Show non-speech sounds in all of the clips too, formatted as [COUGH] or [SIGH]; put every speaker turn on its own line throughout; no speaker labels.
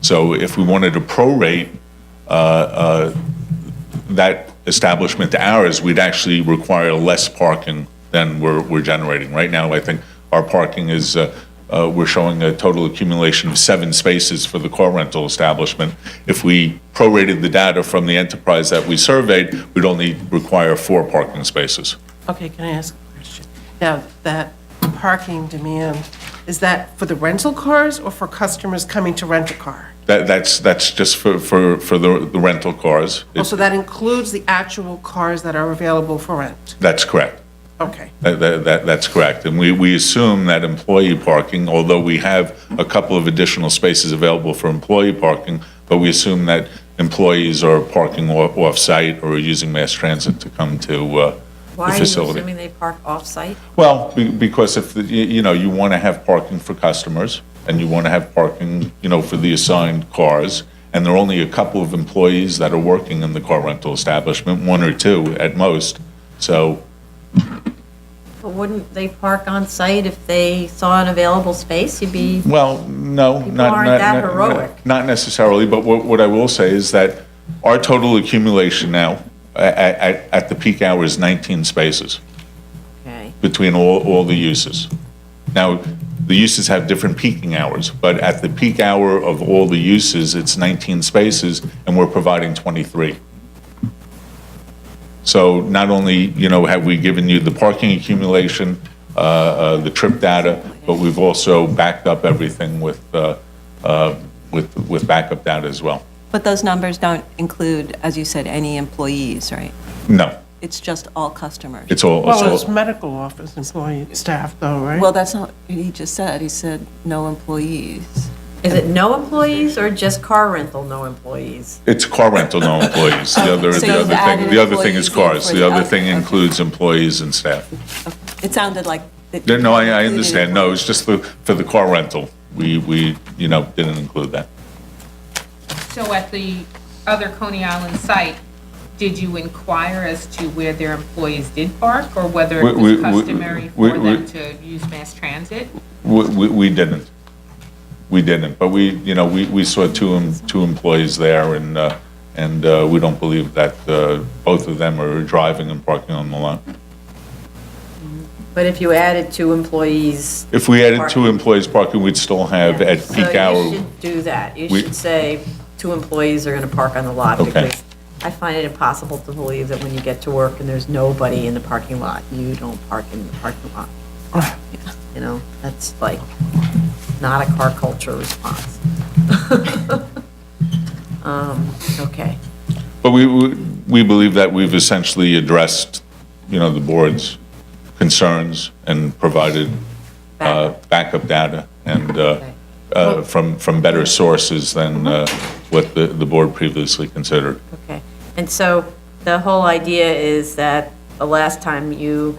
So if we wanted to prorate uh, uh, that establishment to ours, we'd actually require less parking than we're, we're generating. Right now, I think our parking is, uh, uh, we're showing a total accumulation of seven spaces for the car rental establishment. If we prorated the data from the enterprise that we surveyed, we'd only require four parking spaces.
Okay, can I ask a question? Now, that parking demand, is that for the rental cars or for customers coming to rent a car?
That, that's, that's just for, for, for the the rental cars.
Oh, So that includes the actual cars that are available for rent?
That's correct.
Okay.
That, that- that, that's correct. And we, we assume that employee parking, although we have a couple of additional spaces available for employee parking, but we assume that employees are parking o- off-site or using mass transit to come to uh, the
Why are you
facility.
assuming they park off-site?
Well, be- because if, the- you you know, you want to have parking for customers, and you want to have parking, you know, for the assigned cars, and there are only a couple of employees that are working in the car rental establishment, one or two at most, so
But wouldn't they park on-site if they saw an available space? You'd be,
Well, no, not,
People
not.
aren't that
not- not-
heroic.
Not necessarily, but what, what I will say is that our total accumulation now, at, at, at the peak hour is 19 spaces
okay,
between all, all the uses. Now, the uses have different peaking hours, but at the peak hour of all the uses, it's 19 spaces, and we're providing 23. So not only, you know, have we given you the parking accumulation, uh, uh, the trip data, but we've also backed up everything with, uh, uh, with, with backup data as well.
But those numbers don't include, as you said, any employees, right?
No,
It's just all customers.
it's all,
Well, it's
it's all,
medical office employee, staff though, right?
Well, that's not what he just said. He said no employees.
is it no employees or just car rental, no employees?
it's car rental, no employees. The other,
So
the
you've
other thing,
added
the other thing is
employees in
cars.
for
The
the
other
other-
thing
okay.
includes employees and staff.
It sounded like. that-
Yeah, No, I, I
included
understand. No, it's just the, for the car rental. We, we, you know, didn't include that.
So at the other Coney Island site, did you inquire as to where their employees did park or whether
We-
it
we-
was
we-
customary
we-
for
we-
them to use mass transit?
We, we, we didn't. We didn't, but we, you know, we, we saw two, em- two employees there and, uh, and, uh, we don't believe that, uh, both of them are driving and parking on the lot.
But if you added two employees.
If we added two
Parking.
employees parking, we'd still have at peak
So you
hour.
should do that. You
we-
should say, two employees are going to park on the lot.
Okay.
because I find it impossible to believe that when you get to work and there's nobody in the parking lot, you don't park in the parking lot. You know, that's like not a car culture response. [LAUGHS] Um, Okay.
But we, we we believe that we've essentially addressed, you know, the board's concerns and provided uh, backup data and uh, uh, from, from better sources than uh, what the, the board previously considered.
Okay, and so the whole idea is that the last time you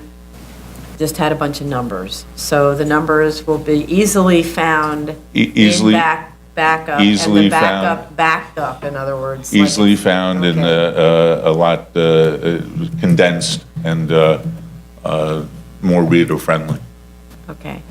just had a bunch of numbers. So the numbers will be easily found
E- easily-
in back, backup. And
easily
the
found-
backup backed up, in other words. like-
Easily found and
Okay.
uh, uh, a lot uh, uh, condensed and uh, uh, more reader-friendly.
Okay,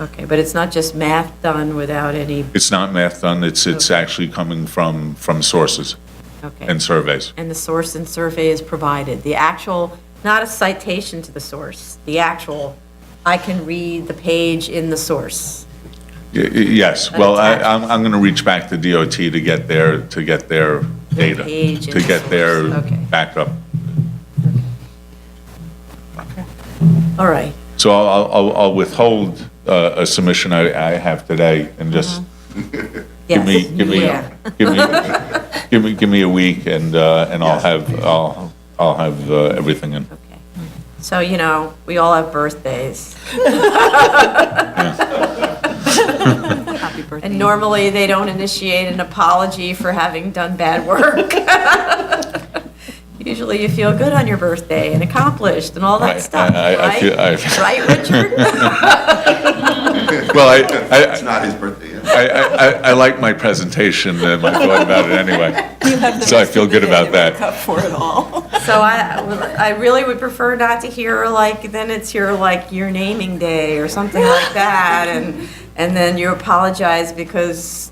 okay, but it's not just math done without any,
It's not math done, it's, it's actually coming from, from sources
okay.
and surveys.
And the source and survey is provided, the actual, not a citation to the source, the actual, I can read the page in the source.
Y- y- Yes, well, I,
attached.
I'm, I'm going to reach back to DOT to get their, to get their data,
page
to
and
get their
source, okay.
backup.
All right,
So I'll- I'll, I'll- I'll withhold uh, a submission I, I have today and just
yes.
give me, give me,
Mm-hmm. Yeah.
give me,
[LAUGHS]
give me, give me a week and, uh, and I'll have, I'll, I'll have uh, everything in.
Okay. So, you know, we all have birthdays.
Happy birthday.
And normally, they don't initiate an apology for having done bad work. [LAUGHS] Usually, you feel good on your birthday and accomplished and all
I-
that stuff,
I- I- I
right?
feel- I-
Right, Richard?
Well, I,
It's
I,
not his birthday yet.
[LAUGHS] I, I, I like my presentation and my thought about it
[LAUGHS]
anyway. So I feel good about that.
Up for it all.
So I, I really would prefer not to hear like, then it's your, like, your naming day or something like that. And, and then you apologize because